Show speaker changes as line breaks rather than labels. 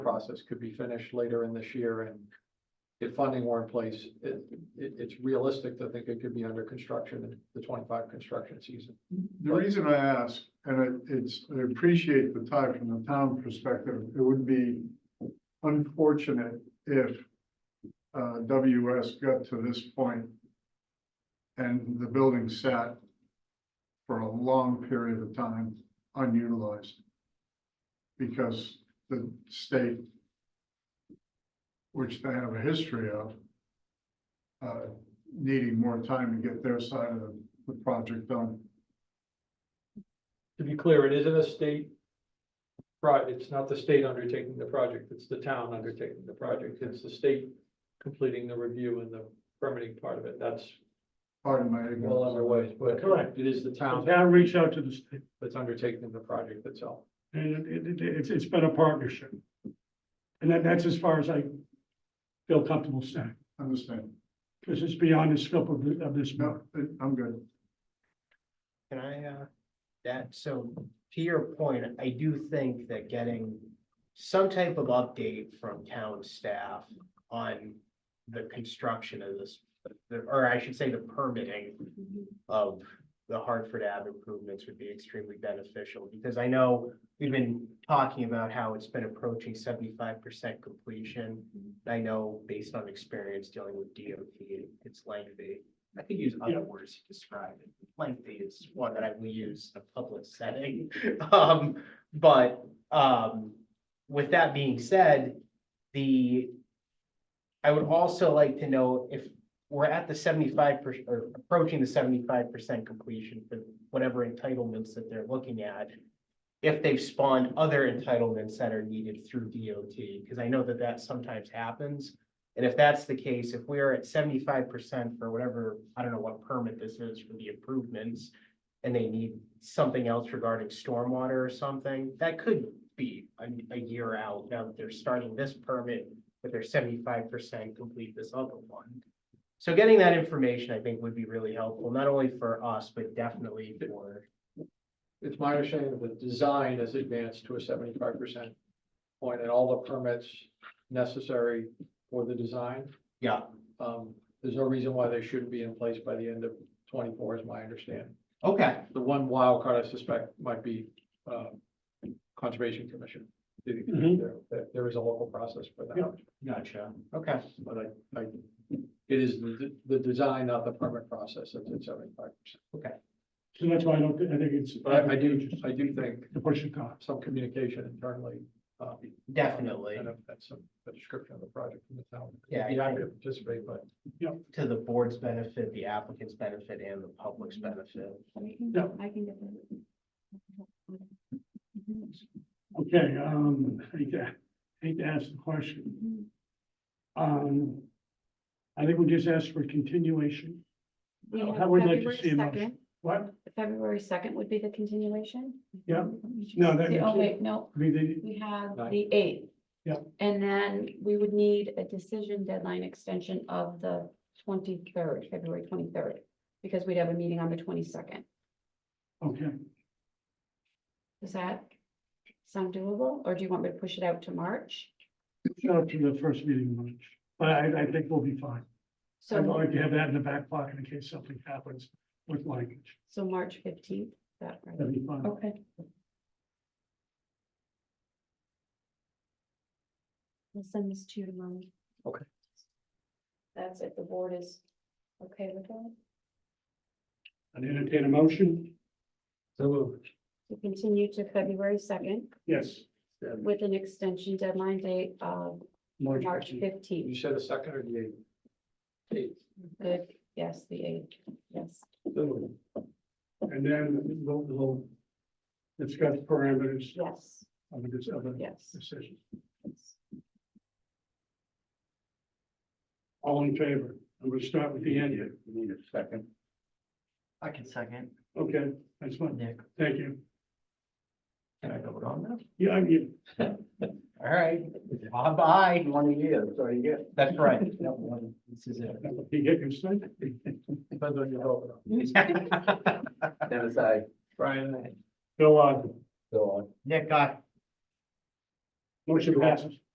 process could be finished later in this year and if funding were in place, it, it, it's realistic to think it could be under construction in the twenty-five construction season.
The reason I ask, and I- it's, I appreciate the time from the town perspective, it would be unfortunate if uh, WS got to this point and the building sat for a long period of time unutilized because the state, which they have a history of, uh, needing more time to get their side of the- the project done.
To be clear, it isn't a state right, it's not the state undertaking the project, it's the town undertaking the project, it's the state completing the review and the permitting part of it, that's
Pardon my
well
ignorance.
underway, but
Correct.
it is the
The
town
town reached out to the state,
that's undertaking the project itself.
and it, it, it's, it's been a partnership. And that, that's as far as I feel comfortable saying,
Understand.
because it's beyond the scope of, the- of this.
No, I- I'm good.
Can I, uh, that, so to your point, I do think that getting some type of update from town staff on the construction of this, or I should say the permitting of the Hartford Ave improvements would be extremely beneficial, because I know we've been talking about how it's been approaching seventy-five percent completion. I know based on experience dealing with DOT, it's lengthy. I could use
Yeah.
other words to describe it. Lengthy is one that I will use in a public setting. Um, but, um, with that being said, the, I would also like to know if we're at the seventy-five percent, or approaching the seventy-five percent completion for whatever entitlements that they're looking at. If they've spawned other entitlements that are needed through DOT, because I know that that sometimes happens. And if that's the case, if we're at seventy-five percent for whatever, I don't know what permit this is for the improvements. And they need something else regarding stormwater or something, that could be a, a year out now that they're starting this permit. But they're seventy-five percent complete this other one. So getting that information, I think, would be really helpful, not only for us, but definitely for,
It's my understanding that the design has advanced to a seventy-five percent point and all the permits necessary for the design.
yeah,
Um, there's no reason why they shouldn't be in place by the end of twenty-four is my understanding.
okay,
The one wild card I suspect might be, um, Conservation Commission. There-
Mhm.
there- there is a local process for that,
Yeah.
gotcha, okay.
but I, I, it is the, the design, not the permit process that's at seventy-five percent.
So that's why I don't, thi- I think it's.
But I, I do, I do think
To push it on.
some communication internally, um,
Definitely,
Kind of, that's a, a description of the project from the town.
Yeah,
Be
I
happy to participate, but
to the board's benefit, the applicant's benefit, and the public's benefit.
I can,
Yeah.
I can get that.
Okay, um, I hate to, hate to ask the question. Um, I think we just asked for continuation.
We have
I would like to
February
see a motion.
2nd.
What?
February second would be the continuation?
Yeah. No,
No,
that-
Oh, wait, no,
I mean, they-
we have
Nine.
the eighth.
Yeah.
And then we would need a decision deadline extension of the twenty-third, February twenty-third, because we'd have a meeting on the twenty-second.
okay,
Does that sound doable, or do you want me to push it out to March?
shut up to the first meeting in March, but I, I think we'll be fine. I'd
So,
like to have that in the back pocket in case something happens with language.
so March fifteenth, that, right?
That'd be fine.
Okay. I'll send this to you tomorrow.
Okay.
That's it, the board is okay with that,
I'd entertain a motion.
so moved.
to continue to February second
Yes.
with an extension deadline date of March
you
fifteenth.
said a second or the eighth? Eighth.
Good, yes, the eighth, yes.
So moved.
And then we'll, we'll discuss parameters
Yes,
of this, of the
yes.
decision. All in favor? I'm gonna start with the end here.
Need a second.
I can second.
Okay, that's fine.
Nick,
Thank you.
can I go on now?
Yeah, I mean,
All right, bye-bye. One year, so you get. That's right. Yep, one. This is it.
you get your son?
Depends on your vote.
Never say.
Brian,
Bill, uh,
Nick, I.
motion passes.